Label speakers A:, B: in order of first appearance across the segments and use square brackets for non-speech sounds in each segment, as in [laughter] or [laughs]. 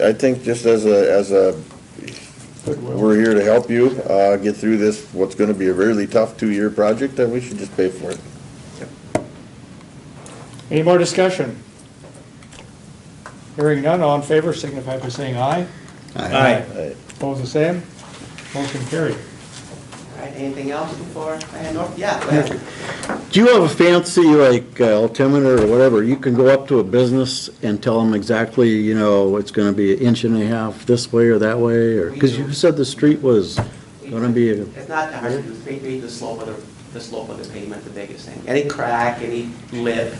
A: I think just as a, as a,
B: Goodwill.
A: we're here to help you, uh, get through this, what's gonna be a really tough two-year project, then we should just pay for it.
B: Any more discussion? Hearing none, all in favor signify by saying aye.
C: Aye.
A: Aye.
B: Opposed, the same. Motion carried.
D: All right, anything else before I hand over? Yeah, go ahead.
E: Do you have a fancy, like, uh, altimeter or whatever, you can go up to a business and tell them exactly, you know, it's gonna be an inch and a half this way or that way, or, because you said the street was gonna be, a-
D: It's not hard to do, we read the slope of the, the slope of the pavement, the biggest thing. Any crack, any lip,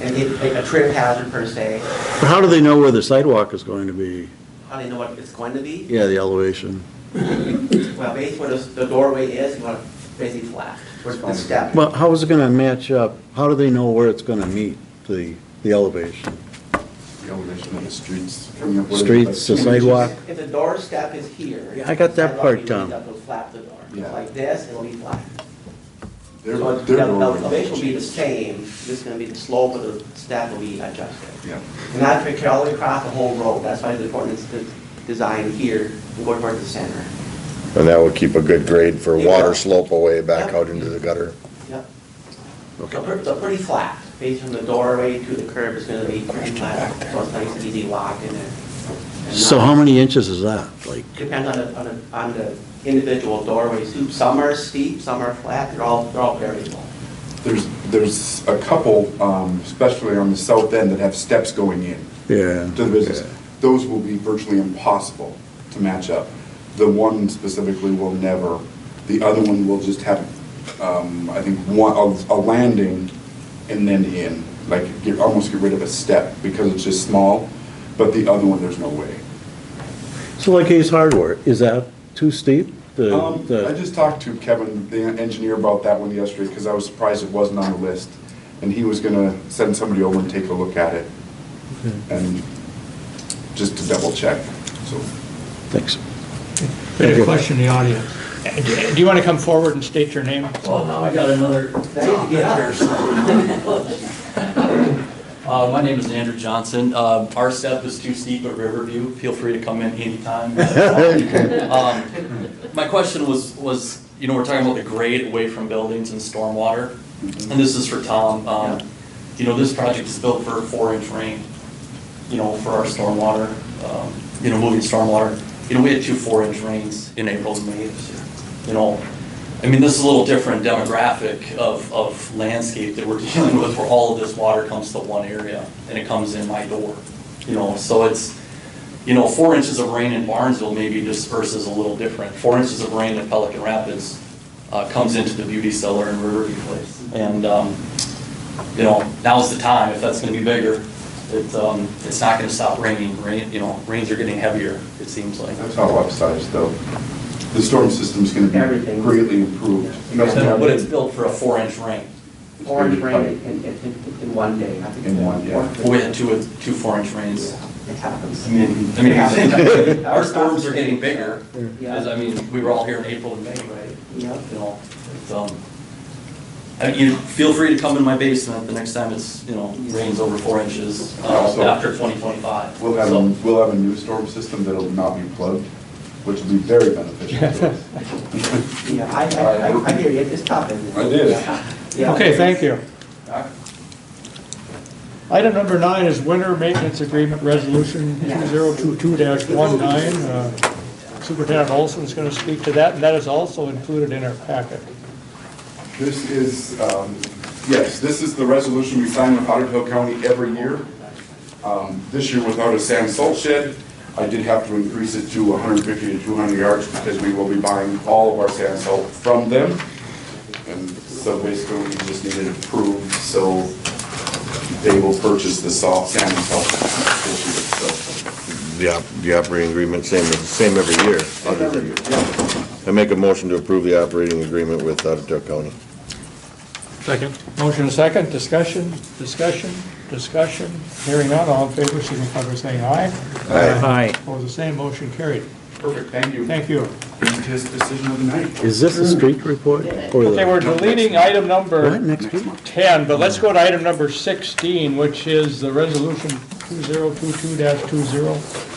D: any, like a trip hazard per se,
E: but how do they know where the sidewalk is going to be?
D: how do you know what it's going to be?
E: Yeah, the elevation.
D: Well, based where the the doorway is, you want to basically flat, where the step.
E: Well, how is it gonna match up? How do they know where it's gonna meet the, the elevation?
F: The elevation of the streets. coming up with it.
E: Streets, the sidewalk?
D: If the door step is here.
E: Yeah, I got that
D: sidewalk,
E: part
D: you
E: down.
D: need to go Flap the door,
F: Yeah.
D: like this, it'll be flat.
F: Their-
D: So
F: their
D: the
F: doorway.
D: elevation will be the same, this is going to be the slope of the step will be adjusted.
F: Yeah.
D: And not to carry all the way across the whole road, that's why the important is to design here and go towards the center.
A: And that would keep a good grade for water
D: Yeah.
A: slope away back out into the gutter.
D: Yep. So pretty, so pretty flat, based from the doorway to the curb is going to be pretty flat, so it's nice, easy walk in there. And
E: So
D: not-
E: how many inches is that? Like,
D: Depends on the, on the, on the individual doorways, too. some are steep, some are flat, they're all, they're all variable.
F: There's, there's a couple, um, especially on the south end, that have steps going in
E: yeah.
F: to the business. Those will be virtually impossible to match up. The one specifically will never, the other one will just have, um, I think, one, a, a landing and then in, like, get, almost get rid of a step because it's just small, but the other one, there's no way.
E: So like Ace Hardware, is that too steep? The-
F: Um,
E: the-
F: I just talked to Kevin, the engineer, about that one yesterday, because I was surprised it wasn't on the list. And he was gonna send somebody over and take a look at it, and just to double check, so.
E: Thanks.
B: Any question in the audience? Do you want to come forward and state your name?
G: Well, now I got another.
D: Thank you.
G: [laughs] Uh, my name is Andrew Johnson. Uh, our step is too steep at Riverview. Feel free to come in anytime. Um, My question was, was, you know, we're talking about the grade away from buildings and stormwater. And this is for Tom. Um, you know, this project is built for four inch rain, you know, for our stormwater, um, you know, moving stormwater. You know, we had two four inch rains in April and May this year, you know. I mean, this is a little different demographic of, of landscape that we're [laughs] dealing with where all of this water comes to one area and it comes in my door, you know, so it's, you know, four inches of rain in Barnesville maybe disperses a little different. Four inches of rain in Pelican Rapids uh, comes into the beauty cellar in Riverview Place. And, um, you know, now's the time, if that's gonna be bigger, it, um, it's not gonna stop raining, rain, you know, rains are getting heavier, it seems like.
F: That's how upsized, though. The storm system's gonna be
D: Everything.
F: greatly improved. It doesn't have-
G: But it's built for a four-inch rain.
F: It's gonna
D: Orange
F: be
D: rain
F: tight.
D: in, in, in- in one day, I think.
F: In one, yeah.
G: We had two, two four-inch rains.
D: It happens.
G: I mean,
D: [laughs]
G: I mean, [laughs] our storms are getting bigger, because, I mean, we were all here in April and May, right?
D: Yep.
G: You know, it's, um, I mean, you feel free to come in my basement the next time it's, you know, rains over four inches, uh,
F: So-
G: after twenty twenty-five.
F: We'll have, a- we'll have a new storm system that'll not be plugged, which will be very beneficial to us.
D: Yeah, I, I, I- I hear you, it's tough, isn't it?
F: I did.
D: Yeah.
B: Okay, thank you.
D: Alright.
B: Item number nine is winter maintenance agreement resolution 2022-19. Uh, Superintendent Olson is going to speak to that, and that is also included in our packet.
F: This is, um, yes, this is the resolution we sign with Otter Tail County every year. Um, This year without a sand salt shed, I did have to increase it to 150 to 200 yards because we will be buying all of our sand salt from them. And so basically, we just needed approved, so they will purchase the salt, sand and salt this year, so.
A: The op, the operating agreement, same, same every year. other than- I make a motion to approve the operating agreement with Otter County.
B: Second. Motion and second, discussion, discussion, discussion. Hearing none, all in favor, signify by saying aye.
C: Aye.
B: Opposed, the same, motion carried.
F: Perfect, thank you.
B: Thank you.
F: His decision of the night.
E: Is this a street report? or the-
B: Okay, we're deleting item number
E: What, next week?
B: 10, but let's go to item number 16, which is the resolution 2022-20.